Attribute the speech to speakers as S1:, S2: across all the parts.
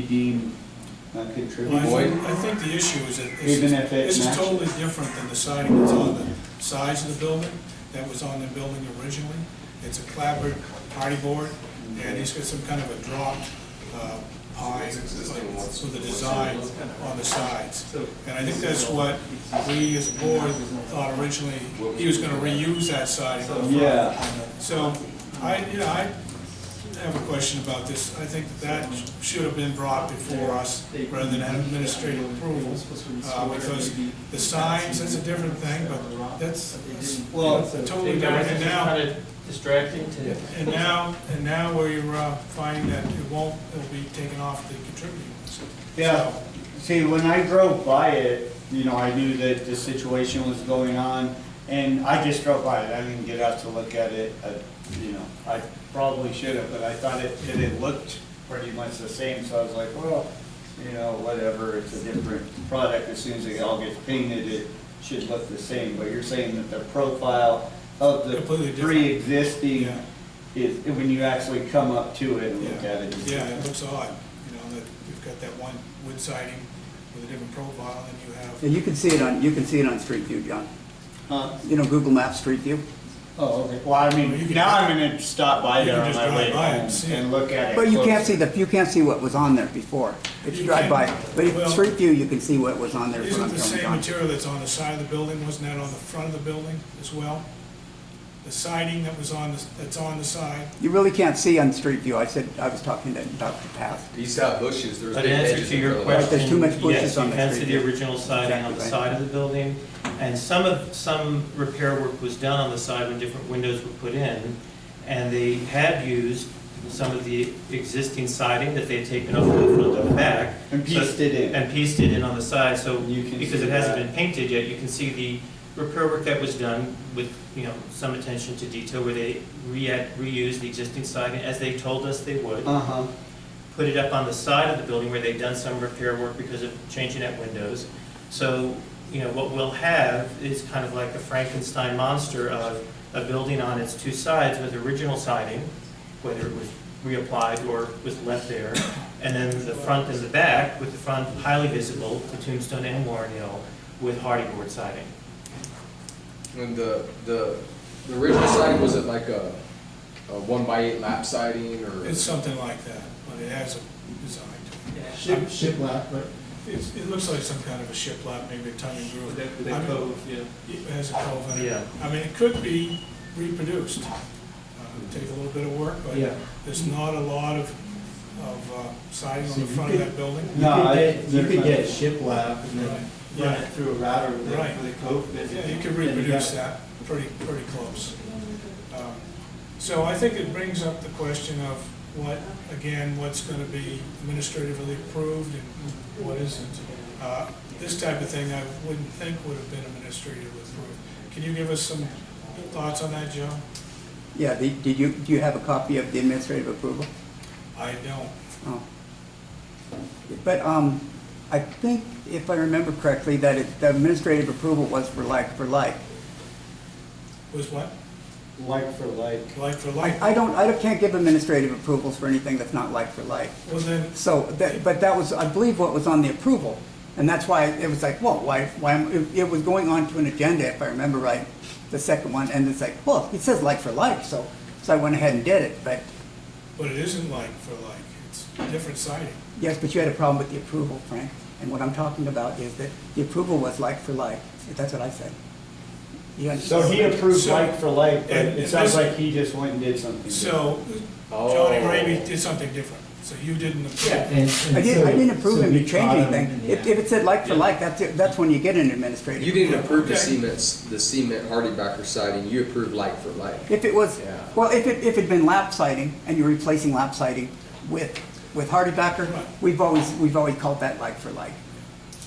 S1: be deemed a contributor.
S2: Well, I
S3: Boyd?
S2: think, I think the issue is that this
S1: Even if it
S2: is, this is
S1: matches.
S2: totally different than the siding that's on the sides of the building, that was on the building originally. It's a clapboard party board, and it's got some kind of a dropped uh, pine like, with a design on the sides. And I think that's what we as a board thought originally, he was gonna reuse that siding.
S1: Yeah,
S2: So, I, you know, I have a question about this. I think that should have been brought before us rather than have administrative approval. uh, Because the signs, that's a different thing, but that's that's
S1: well,
S2: totally different. And now,
S4: Kind of distracting to.
S2: and now, and now we're uh, finding that it won't, it'll be taken off the contributors.
S1: yeah, see, when I drove by it, you know, I knew that the situation was going on, and I just drove by it, I didn't get out to look at it, uh, you know, I probably should have, but I thought it, it had looked pretty much the same, so I was like, well, you know, whatever, it's a different product, as soon as it all gets painted, it should look the same, but you're saying that the profile of the
S2: Completely different.
S1: pre-existing
S2: Yeah.
S1: is, when you actually come up to it and look at it.
S2: Yeah, it looks odd, you know, that you've got that one wood siding with a different profile and you have
S5: And you can see it on, you can see it on Street View, John.
S1: Huh?
S5: You know, Google Maps Street View?
S1: Oh, okay. Well, I
S2: Well, you
S1: mean,
S2: can-
S1: now I'm gonna stop by
S2: You
S1: there
S2: can
S1: on
S2: just
S1: my
S2: drive
S1: way
S2: by and
S1: home
S2: see it.
S1: and look at it.
S5: But you can't see
S1: closer.
S5: the, you can't see what was on there before. If you
S2: You
S5: drive by,
S2: can.
S5: but
S2: Well-
S5: if Street View, you can see what was on there
S2: Isn't
S5: from,
S2: the
S5: from
S2: same
S5: John.
S2: material that's on the side of the building, wasn't that on the front of the building as well? The siding that was on, the that's on the side?
S5: You really can't see on Street View. I said, I was talking to Dr. Path.
S3: He's got uh, bushes, there's.
S4: But
S3: big
S4: in answer
S3: hedges
S4: to
S3: in
S4: your
S3: front of
S5: Right,
S3: the
S5: there's too
S4: question,
S5: much bushes
S4: yes,
S5: on
S4: you
S5: the
S4: can see
S5: street
S4: the
S5: there.
S4: original siding on the
S5: Exactly right.
S4: side of the building, and some of, some repair work was done on the side when different windows were put in, and they had used some of the existing siding that they had taken off the front and the back.
S1: And pieced it in.
S4: And pieced it in on the side, so,
S1: You can
S4: because
S1: see
S4: it hasn't
S1: that.
S4: been painted yet, you can see the repair work that was done with, you know, some attention to detail, where they re- reused the existing siding as they told us they would
S1: Uh-huh.
S4: put it up on the side of the building where they've done some repair work because of changing out windows. So, you know, what we'll have is kind of like a Frankenstein monster of a building on its two sides with original siding, whether it was reapplied or was left there, and then the front and the back, with the front highly visible to Tombstone and Warren Hill, with hardy board siding.
S3: And the, the, the original siding, was it like a, a one by eight lap siding or?
S2: It's something like that, but it has a design to
S6: Ship, shiplap, right?
S2: it. It's, it looks like some kind of a shiplap, maybe a tongue and groove.
S6: With that, with that
S2: I mean,
S6: cove, yeah.
S2: It has a cove in it.
S4: Yeah.
S2: I mean, it could be reproduced. Uh, it'd Take a little bit of work, but
S4: Yeah.
S2: there's not a lot of, of uh, siding on
S6: So
S2: the
S6: you
S2: front of
S6: could-
S2: that building.
S1: No, I-
S6: You could get shiplap and then
S2: Right.
S6: run it through a router with
S2: Right.
S6: a, with a cove bit.
S2: Yeah, you can
S6: and got
S2: reproduce
S6: it.
S2: that pretty, pretty close. Um, So I think it brings up the question of what, again, what's going to be administratively approved and what isn't. Uh, This type of thing I wouldn't think would have been administratively approved. Can you give us some thoughts on that, Joe?
S5: Yeah, the- did you, do you have a copy of the administrative approval?
S2: I don't.
S5: Oh. But um, I think, if I remember correctly, that it- the administrative approval was for like, for like.
S2: Was what?
S1: Like for like.
S2: Like for like?
S5: I I don't, I can't give administrative approvals for anything that's not like for like.
S2: Well, then,
S5: So, that, but that was, I believe, what was on the approval, and that's why it was like, whoa, why, why, am- it- it was going on to an agenda, if I remember right, the second one, and it's like, well, it says like for like, so, so I went ahead and did it, but,
S2: but it isn't like for like. It's different siding.
S5: yes, but you had a problem with the approval, Frank, and what I'm talking about is that the approval was like for like, that's what I said. You
S1: So
S5: understand?
S1: he approved
S2: So-
S1: like for like, but
S2: And-
S1: it
S2: and
S1: sounds
S2: this-
S1: like he just went and did something.
S2: So
S3: Oh.
S2: Johnny Raby did something different. So you didn't approve.
S6: And- and
S5: I didn't, I
S6: so-
S5: didn't approve
S6: so
S5: him to
S6: we
S5: change
S6: caught him
S5: anything,
S6: in the
S5: if,
S6: act.
S5: if it said like for like, that's, it- that's when you get an administrative.
S3: You didn't approve the
S2: Okay.
S3: cement, the cement hardy backer siding, you approved like for like.
S5: If it was,
S3: Yeah.
S5: well, if it, if it'd been lap siding and you're replacing lap siding with, with hardy backer,
S2: Right.
S5: we've always, we've always called that like for like.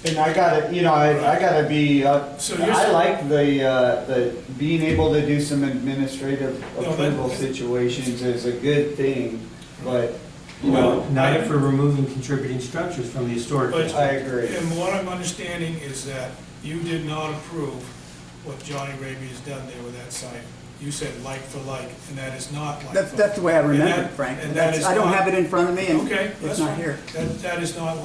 S1: And I gotta, you know, I, I gotta be, uh,
S2: So you're-
S1: I like the, uh, the, being able to do some administrative
S2: No, that-
S1: approval situations is a good thing, but, you know,
S4: Well, not if we're removing contributing structures from the historic
S2: But-
S4: district.
S1: I agree.
S2: And what I'm understanding is that you did not approve what Johnny Raby has done there with that site. you said like for like, and that is not like.
S5: That's,
S2: for-
S5: that's the way I
S2: And
S5: remember
S2: that-
S5: it, Frank.
S2: and that
S5: That's-
S2: is
S5: I don't
S2: not-
S5: have it in front of me, and
S2: Okay,
S5: it's
S2: that's
S5: not
S2: fine.
S5: here.
S2: That, that is not